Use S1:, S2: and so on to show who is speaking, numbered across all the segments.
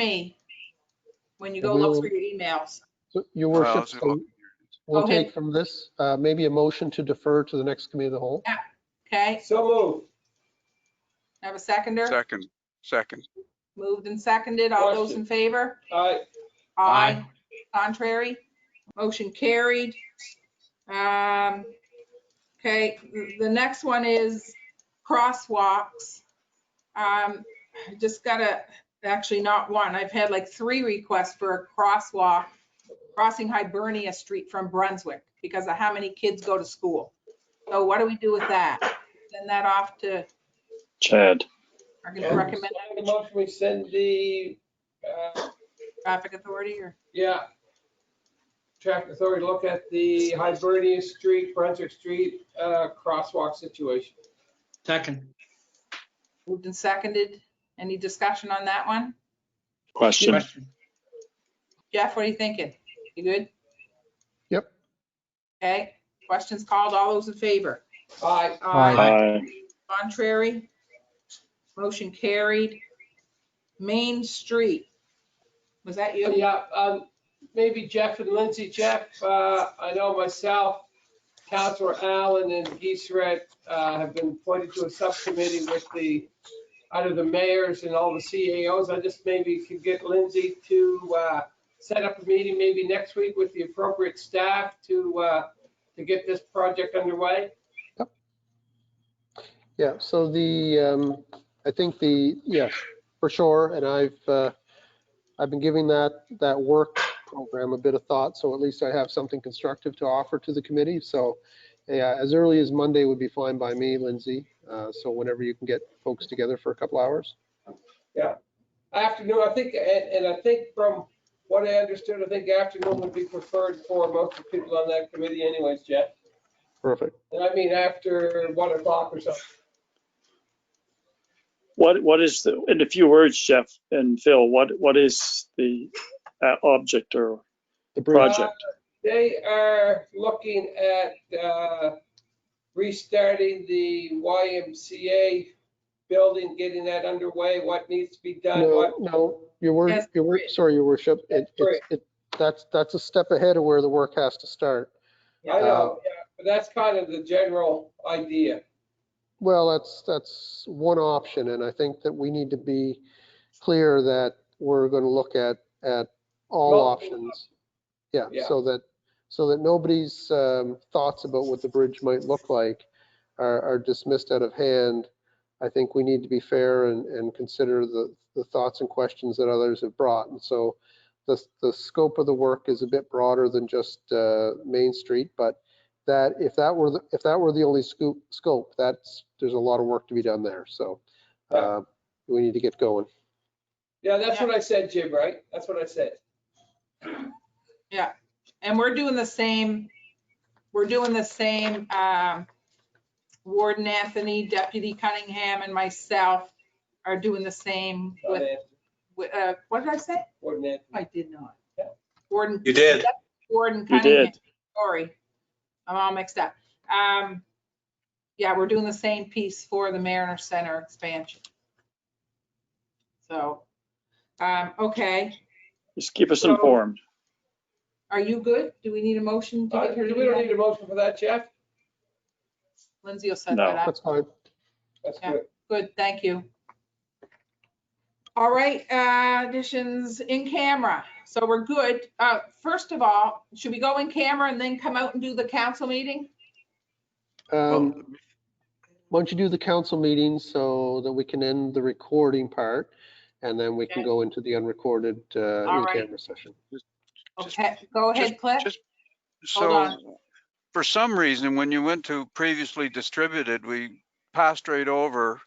S1: me when you go look for your emails.
S2: So, Your
S3: Well,
S2: worship,
S3: it's a
S2: so
S3: lot-
S1: Go
S2: we'll
S1: ahead.
S2: take from this, uh, maybe a motion to defer to the next committee of the whole.
S1: Okay,
S4: So moved.
S1: have a seconder?
S3: Second, second.
S1: Moved and seconded. All those in favor?
S4: Aye.
S1: Aye. Contrary? Motion carried. Um, okay, the next one is crosswalks. Um, I just got a, actually not one. I've had like three requests for a crosswalk crossing Hibernia Street from Brunswick because of how many kids go to school. So what do we do with that? Send that off to
S5: Chad.
S1: Are
S4: And
S1: gonna recommend
S4: I have a motion, we send the, uh,
S1: traffic authority or,
S4: yeah, traffic authority, look at the Hibernia Street, Brunswick Street, uh, crosswalk situation.
S6: Second.
S1: moved and seconded? Any discussion on that one?
S5: Question.
S6: Question.
S1: Jeff, what are you thinking? You good?
S2: Yep.
S1: Okay, questions called, all those in favor?
S4: Aye.
S1: Aye.
S5: Aye.
S1: Contrary? Motion carried. Main Street. Was that you?
S4: Yeah, um, maybe Jeff and Lindsay, Jeff, uh, I know myself, Counselor Allen and Geesret, uh, have been appointed to a subcommittee with the, out of the mayors and all the CAOs. I just maybe could get Lindsay to, uh, set up a meeting maybe next week with the appropriate staff to, uh, to get this project underway.
S2: Yeah, so the, um, I think the, yes, for sure, and I've, uh, I've been giving that, that work program a bit of thought, so at least I have something constructive to offer to the committee, so, yeah, as early as Monday would be fine by me, Lindsay, uh, so whenever you can get folks together for a couple hours.
S4: Afternoon, I think, and, and I think from what I understood, I think afternoon would be preferred for most of the people on that committee anyways, Jeff.
S2: Perfect.
S4: And I mean after one o'clock or something.
S5: What, what is the, in a few words, Jeff and Phil, what, what is the uh, object or
S2: The bridge,
S5: project?
S4: Uh, They are looking at uh, restarting the YMCA building, getting that underway, what needs to be done,
S2: no,
S4: what,
S2: no, your wor,
S1: Yes,
S2: your wor,
S1: bridge.
S2: sorry, your worship, it,
S4: Yes,
S2: it, it, that's, that's a step ahead of where the work has to start.
S4: I know, yeah, but that's kind of the general idea.
S2: Well, that's, that's one option, and I think that we need to be clear that we're going to look at, at all
S4: Well-
S2: options. Yeah,
S4: Yeah.
S2: so that, so that nobody's um, thoughts about what the bridge might look like are are dismissed out of hand. I think we need to be fair and, and consider the, the thoughts and questions that others have brought. And so the, the scope of the work is a bit broader than just uh, Main Street, but that, if that were, the- if that were the only scoop, scope, that's, there's a lot of work to be done there. So uh, we need to get going.
S4: Yeah, that's what I said, Jim, right? That's what I said.
S1: And we're doing the same, we're doing the same, um, Warden Anthony, Deputy Cunningham and myself are doing the same with, with, uh, what did I say?
S4: Coordinate.
S1: I did not.
S4: Yeah.
S1: Warden.
S7: You did.
S1: Warden
S5: You
S1: Cunningham,
S5: did.
S1: sorry. I'm all mixed up. Um, yeah, we're doing the same piece for the Mariner Center expansion. So, um, okay,
S5: Just keep us
S1: So-
S5: informed.
S1: are you good? Do we need a motion to
S4: Uh,
S1: get her
S4: We
S1: to
S4: don't
S1: do
S4: need
S1: that?
S4: a motion for that, Jeff?
S1: Lindsay will set
S5: No.
S1: that up.
S2: That's fine.
S4: That's
S1: Yeah.
S4: good.
S1: Good, thank you. All right, uh, additions in camera. So we're good. Uh, first of all, should we go in camera and then come out and do the council meeting?
S2: Um,
S3: Well,
S2: why don't you do the council meeting so that we can end the recording part? And then we can
S1: Okay.
S2: go into the unrecorded uh,
S1: All right.
S2: in-camera session.
S3: Just-
S1: Okay, go ahead, Cliff.
S3: just-
S1: Hold
S3: So, for some reason, when you went to previously distributed, we passed right over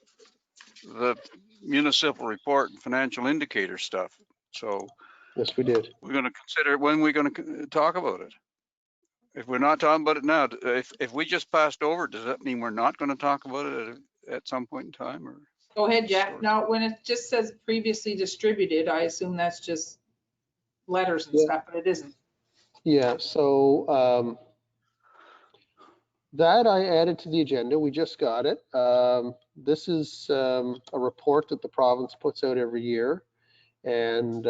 S3: the municipal report and financial indicator stuff. So
S2: Yes, we did.
S3: we're going to consider, when we're going to talk about it. If we're not talking about it now, d- if, if we just passed over, does that mean we're not going to talk about it at, at some point in time or?
S1: Go ahead, Jeff.
S3: Sorry.
S1: No, when it just says previously distributed, I assume that's just letters and
S2: Yeah.
S1: stuff, but it isn't.
S2: Yeah, so um, that I added to the agenda. We just got it. Um, This is um, a report that the province puts out every year. And